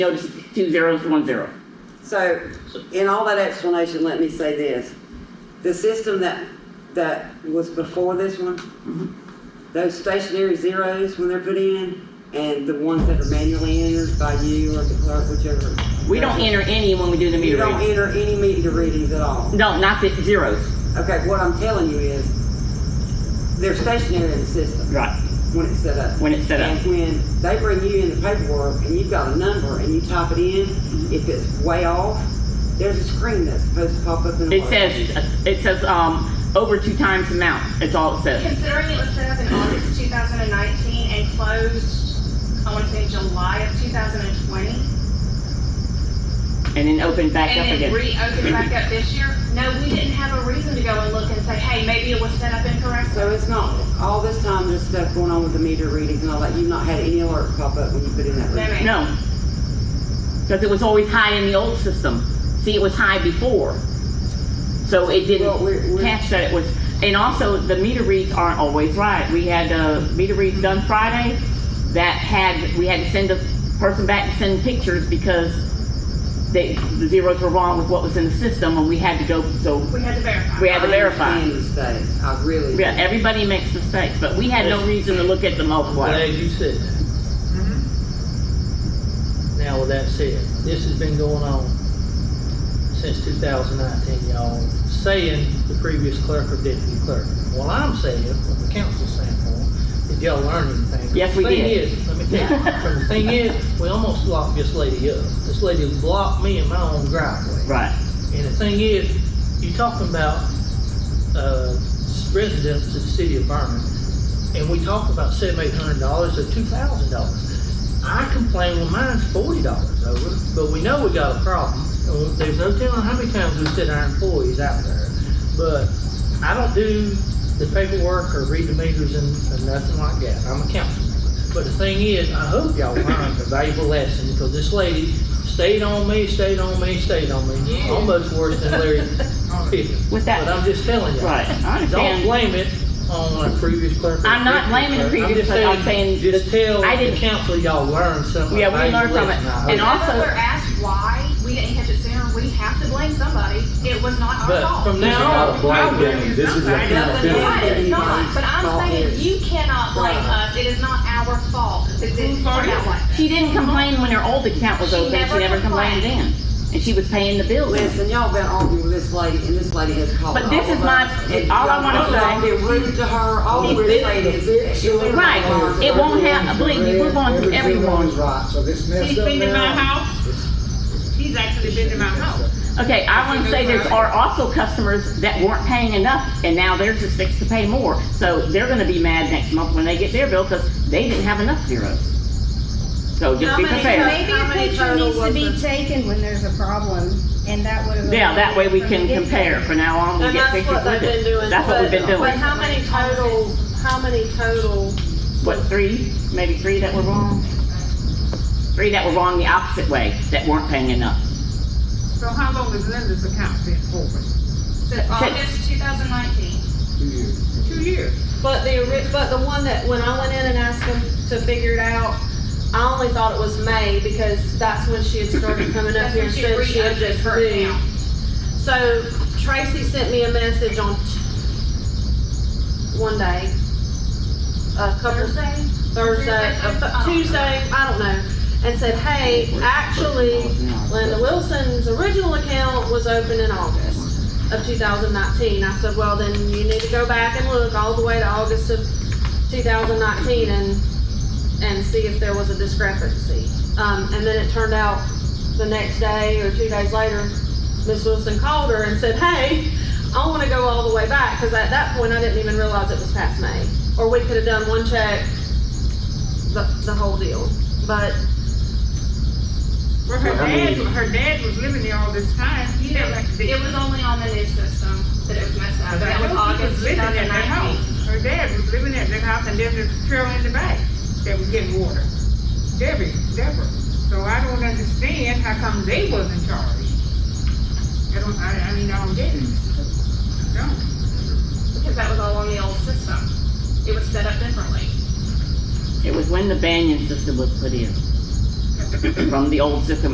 Notice two zeros, one zero. So, in all that explanation, let me say this. The system that, that was before this one, Mm-hmm. those stationary zeros when they're put in, and the ones that are manually entered by you or the clerk, whichever. We don't enter any when we do the You meter don't reading. enter any meter readings at all. No, not the zeros. Okay, what I'm telling you is, they're stationary in the system Right, when it's set up. when it's set up. And when they bring you in the paperwork and you've got a number and you type it in, if it's way off, there's a screen that's supposed to pop up in the. It says, it says, um, over two times amount. It's all it says. Considering it was set up in August 2019 and closed, I want to say July of 2020, And then open back up and again. then reopened back up this year, no, we didn't have a reason to go and look and say, hey, maybe it was set up incorrectly. So it's not, all this time, this stuff going on with the meter readings and all that, you've not had any alert pop up when you put in that No, reading? ma'am. No. Because it was always high in the old system. See, it was high before. So it Well, didn't we're, we're, catch that it was, and also the meter reads aren't always right. We had, uh, meter reads done Friday that had, we had to send a person back to send pictures because they, the zeros were wrong with what was in the system and we had to go, so, We had to verify. We had- to verify. I understand mistakes, I really. yeah, everybody makes mistakes, but we had no reason to look at the multiplier. Glad you said that. Now, with that said, this has been going on since two thousand nineteen, y'all, saying the previous clerk or deputy clerk. Well, I'm saying, from the council standpoint, did y'all learn anything? Yes, we The Thing did. is, let me tell you, the thing is, we almost locked this lady up. This lady blocked me in my own driveway. Right. And the thing is, you talking about, uh, residents of the city of Vernon, and we talk about seven, eight hundred dollars or two thousand dollars. I complain, well, mine's forty dollars over, but we know we got a problem, and there's no telling how many times we sent our employees out there. But I don't do the paperwork or read the meters and, and nothing like that, I'm a council member. But the thing is, I hope y'all learned a valuable lesson, because this lady stayed on me, stayed on me, stayed on me, almost worse than Larry Pippen. With But that, I'm just telling you. right, I Don't understand. blame it on a previous clerk. or I'm not blaming the deputy previous clerk. clerk. I'm saying Just tell I didn't- the council y'all learned something. Yeah, we learned from it. And I hope. Whenever also- we're asked why we didn't catch it sooner, we have to blame somebody. It was not our But fault. from This is not now a on, blind game, this is a Nothing penalty. wrong. Right, it's not, but I'm Fault saying is- you cannot blame Right. us. It is not our fault. It didn't turn out like that. She didn't complain when her old account was She open, she never never complained then. complained. And she was paying the bills. Listen, y'all been arguing with this lady, and this lady has called. But this all is of my- us. it- all I wanna Y'all say- been rude to her, all It's we're been- saying is. Right. It won't happen. Believe me, we're going through every one. Right, so this He's messed up been to my now. house. He's actually been to my house. Okay, I want to say there are also customers that weren't paying enough, and now they're just fixed to pay more. So they're gonna be mad next month when they get their bill, because they didn't have enough zeros. So just be prepared. Maybe a picture needs to be taken when there's a problem, and that would have. Yeah, that way we can compare, from now on, we'll And get that's pictures what they've with been it. doing. That's what we've been But- But doing. how many total, how many total, What, three, maybe three that were wrong? Three that were wrong the opposite way, that weren't paying enough. So how long has Linda's account been open? Since August 2019. Two years. but the, ori- but the one that, when I went in and asked them to figure it out, I only thought it was May because that's when she had started coming up That's here when and she said she had reopened just her moved. account. So Tracy sent me a message on t- one day, a couple Thursday? Uh, Thursday? Thursday, a- Tuesday, I don't know, and said, hey, actually, Linda Wilson's original account was open in August of 2019. I said, well, then you need to go back and look all the way to August of 2019 and, and see if there was a discrepancy. Um, and then it turned out the next day or two days later, Miss Wilson called her and said, hey, I want to go all the way back, because at that point, I didn't even realize it was past May. Or we could have done one check, the, the whole deal, but Well, her So how many- dad, her dad was living there all this time. He never had to be. It was only on the new system that it was messed up. But I Uh, That was know he August living at that 2019. house. Her dad was living at that house and there's a trail in the back that was getting water. Debbie, Deborah. So I don't understand how come they wasn't charged. I don't, I, I mean, I don't get it. I don't. Because that was all on the old system. It was set up differently. It was when the Banyan system was put in. That's from the old system